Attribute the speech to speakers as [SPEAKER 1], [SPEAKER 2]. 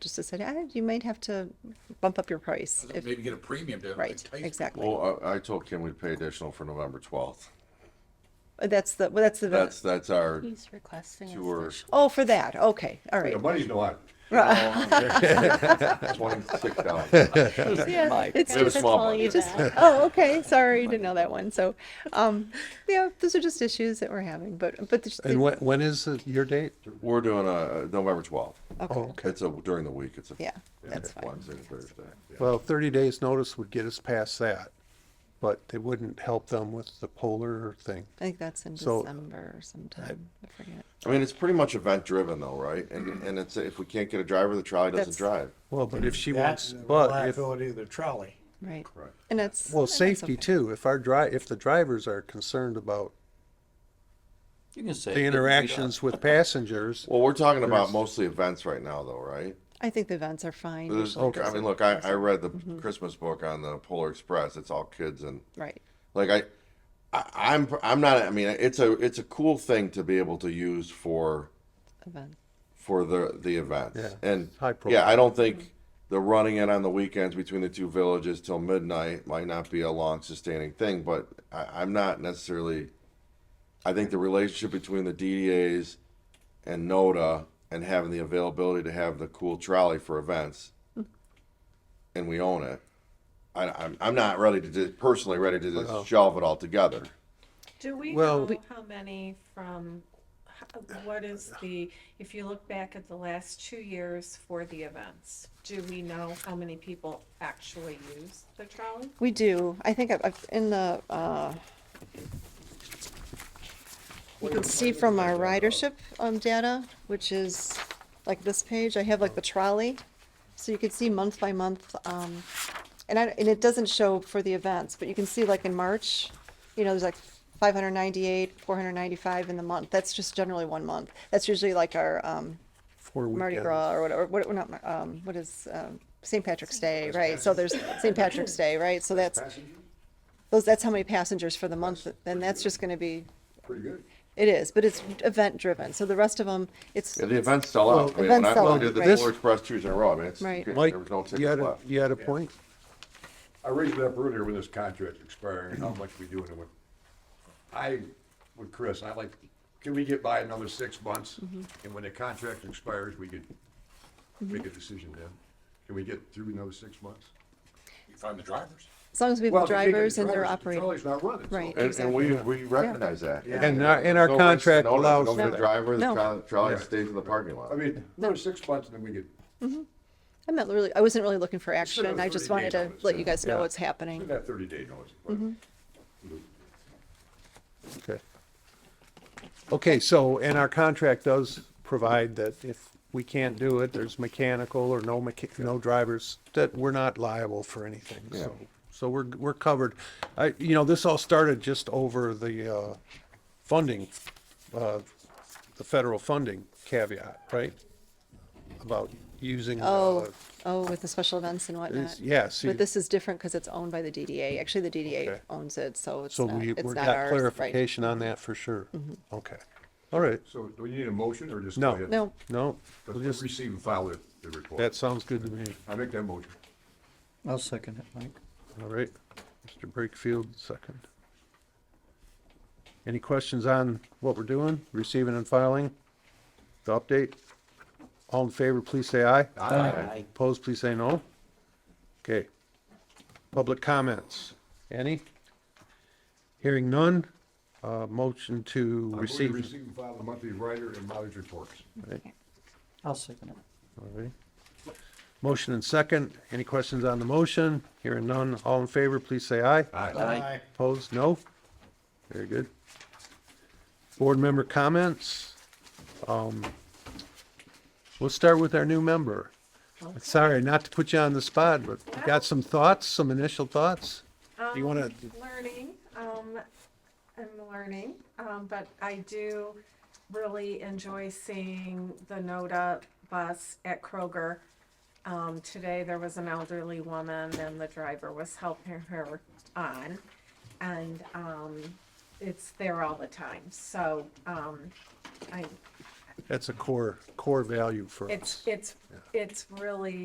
[SPEAKER 1] just decided, ah, you might have to bump up your price. if-
[SPEAKER 2] Maybe get a premium to
[SPEAKER 1] Right,
[SPEAKER 2] entice people.
[SPEAKER 1] exactly.
[SPEAKER 3] Well, I, I told Kim we'd pay additional for November twelfth.
[SPEAKER 1] That's the, well, that's the,
[SPEAKER 3] That's, that's our
[SPEAKER 4] He's requesting. us to-
[SPEAKER 3] tour.
[SPEAKER 1] oh, for that, okay, all right.
[SPEAKER 5] The money's no one.
[SPEAKER 3] Twenty-six dollars.
[SPEAKER 4] Yeah,
[SPEAKER 1] It's
[SPEAKER 4] I
[SPEAKER 3] just-
[SPEAKER 4] was gonna
[SPEAKER 3] small
[SPEAKER 4] call
[SPEAKER 3] one.
[SPEAKER 4] you
[SPEAKER 1] Just-
[SPEAKER 4] back.
[SPEAKER 1] oh, okay, sorry, didn't know that one, so, um, yeah, those are just issues that we're having, but, but. the-
[SPEAKER 6] And when, when is the- your date?
[SPEAKER 3] We're doing a, November twelfth.
[SPEAKER 6] Oh,
[SPEAKER 1] Okay,
[SPEAKER 6] okay.
[SPEAKER 3] It's a, during the week. It's a.
[SPEAKER 1] yeah, that's fine.
[SPEAKER 3] Wednesday, and Thursday.
[SPEAKER 6] Well, thirty days notice would get us past that, but it wouldn't help them with the polar thing.
[SPEAKER 1] I think that's in
[SPEAKER 6] So-
[SPEAKER 1] December sometime, I forget.
[SPEAKER 3] I mean, it's pretty much event driven though, right? And, and it's, if we can't get a driver, the trolley
[SPEAKER 1] That's-
[SPEAKER 3] doesn't drive.
[SPEAKER 6] Well, but if she wants,
[SPEAKER 7] That's the
[SPEAKER 6] but if,
[SPEAKER 7] liability of the trolley.
[SPEAKER 1] Right. And that's.
[SPEAKER 6] well,
[SPEAKER 1] and that's
[SPEAKER 6] safety
[SPEAKER 1] okay.
[SPEAKER 6] too, if our dri, if the drivers are concerned about
[SPEAKER 8] You can say.
[SPEAKER 6] the interactions with passengers,
[SPEAKER 3] Well, we're talking about mostly events right now though, right?
[SPEAKER 1] I think the events are fine.
[SPEAKER 3] There's,
[SPEAKER 1] usually,
[SPEAKER 3] I mean, look, I, I read the
[SPEAKER 1] Mm-hmm.
[SPEAKER 3] Christmas book on the Polar Express. It's all kids and
[SPEAKER 1] Right,
[SPEAKER 3] like I, I I'm I'm not. I mean, it's a it's a cool thing to be able to use for
[SPEAKER 1] event,
[SPEAKER 3] for the the events.
[SPEAKER 6] Yeah,
[SPEAKER 3] And
[SPEAKER 6] high
[SPEAKER 3] yeah,
[SPEAKER 6] profile.
[SPEAKER 3] I don't think the running it on the weekends between the two villages till midnight might not be a long sustaining thing, but I, I'm not necessarily. I think the relationship between the DDAs and NODA and having the availability to have the cool trolley for events,
[SPEAKER 6] Hmm.
[SPEAKER 3] and we own it. I, I'm I'm not ready to just, personally ready to just shelve it all together.
[SPEAKER 9] Do we
[SPEAKER 6] Well-
[SPEAKER 9] know how many from, h- what is the, if you look back at the last two years for the events, do we know how many people actually use the trolley?
[SPEAKER 1] we do, I think I've- I've, in the, uh, you can see from our ridership, um, data, which is like this page, I have like the trolley. So you can see month by month, um, and I, and it doesn't show for the events, but you can see like in March, you know, there's like five hundred ninety-eight, four hundred ninety-five in the month. That's just generally one month. That's usually like our, um,
[SPEAKER 6] for
[SPEAKER 1] Mardi
[SPEAKER 6] weekends.
[SPEAKER 1] Gras or whatever, what, not, Mar- um, what is, um, St. Patrick's Day, right? So there's St. Patrick's Day, right? So that's, those, that's how many passengers for the month, and that's just gonna be,
[SPEAKER 5] Pretty good.
[SPEAKER 1] it is, but it's event driven. So the rest of them, it's,
[SPEAKER 3] Yeah, the events sell out. I mean, when
[SPEAKER 1] Events
[SPEAKER 3] I
[SPEAKER 1] sell
[SPEAKER 3] when we
[SPEAKER 1] out,
[SPEAKER 3] did the
[SPEAKER 1] right.
[SPEAKER 3] Polar Express two years in a row, I mean, it's,
[SPEAKER 1] Right.
[SPEAKER 3] there
[SPEAKER 6] Mike,
[SPEAKER 3] was no tickets
[SPEAKER 6] you had a,
[SPEAKER 3] left.
[SPEAKER 6] you had a point.
[SPEAKER 5] I raised it up earlier when this contract expiring, how much we doing it with. I, with Chris, I like, can we get by another six months? And when the contract expires, we could make a decision then. Can we get through another six months?
[SPEAKER 2] You Find the drivers.
[SPEAKER 1] as long as we have
[SPEAKER 5] Well,
[SPEAKER 1] the
[SPEAKER 5] if you can't get
[SPEAKER 1] drivers and
[SPEAKER 5] the
[SPEAKER 1] they're
[SPEAKER 5] drivers, the
[SPEAKER 1] operating.
[SPEAKER 5] trolley's not running. so-
[SPEAKER 1] Right.
[SPEAKER 3] And, and we, we recognize that.
[SPEAKER 6] And our, and our
[SPEAKER 3] No risk,
[SPEAKER 6] contract
[SPEAKER 3] no risk,
[SPEAKER 6] allows
[SPEAKER 3] no
[SPEAKER 6] for
[SPEAKER 3] The
[SPEAKER 6] that.
[SPEAKER 3] driver, the
[SPEAKER 1] No.
[SPEAKER 3] trolley- trolley stays in the parking lot.
[SPEAKER 5] I mean, another six months and then we could,
[SPEAKER 1] I'm not really, I wasn't really looking for action.
[SPEAKER 5] have
[SPEAKER 1] I just
[SPEAKER 5] 30
[SPEAKER 1] wanted
[SPEAKER 5] days
[SPEAKER 1] to
[SPEAKER 5] on it,
[SPEAKER 1] let
[SPEAKER 5] so-
[SPEAKER 1] you guys know
[SPEAKER 6] Yeah.
[SPEAKER 1] what's
[SPEAKER 5] we
[SPEAKER 1] happening.
[SPEAKER 5] that thirty day notice. but-
[SPEAKER 6] Okay. Okay, so, and our contract does provide that if we can't do it, there's mechanical or no mecha, no drivers, that we're not liable for anything, so. So we're, we're covered. I, you know, this all started just over the, uh, funding, uh, the federal funding caveat, right? About using, uh,
[SPEAKER 1] Oh, oh, with the special events and whatnot.
[SPEAKER 6] is- yeah, see-
[SPEAKER 1] But this is different because it's owned by the DDA. Actually, the DDA
[SPEAKER 6] Okay.
[SPEAKER 1] owns it, so it's
[SPEAKER 6] so
[SPEAKER 1] not,
[SPEAKER 6] we,
[SPEAKER 1] it's
[SPEAKER 6] we're
[SPEAKER 1] not
[SPEAKER 6] got
[SPEAKER 1] ours, right? Mm-hmm.
[SPEAKER 6] clarification on that for sure. Okay, all right,
[SPEAKER 5] So do we need a motion or just?
[SPEAKER 6] No.
[SPEAKER 5] go ahead?
[SPEAKER 1] No,
[SPEAKER 6] no,
[SPEAKER 5] Let's
[SPEAKER 6] we'll just,
[SPEAKER 5] Receive and file the, the report.
[SPEAKER 6] that sounds good to me.
[SPEAKER 5] I make that motion.
[SPEAKER 7] I'll second it, Mike.
[SPEAKER 6] All right, Mr. Breakfield, second. Any questions on what we're doing, receiving and filing, the update? All in favor, please say aye.
[SPEAKER 7] Aye.
[SPEAKER 6] Opposed, please say no. Okay. Public comments, any? Hearing none, uh, motion to
[SPEAKER 5] I move to
[SPEAKER 6] receive.
[SPEAKER 5] receive and file the monthly writer and mileage reports.
[SPEAKER 7] I'll second it.
[SPEAKER 6] All right. Motion and second, any questions on the motion? Hearing none, all in favor, please say aye.
[SPEAKER 7] Aye.
[SPEAKER 6] Opposed, no? Very good. Board member comments? Um, We'll start with our new member. Sorry, not to put you on the spot, but you got some thoughts, some initial thoughts? Do you want to,
[SPEAKER 9] learning. Um, I'm learning, um, but I do really enjoy seeing the NODA bus at Kroger. Um, today there was an elderly woman and the driver was helping her on. And, um, it's there all the time. So, um, I,
[SPEAKER 6] That's a core, core value for us.
[SPEAKER 9] It's, it's, it's really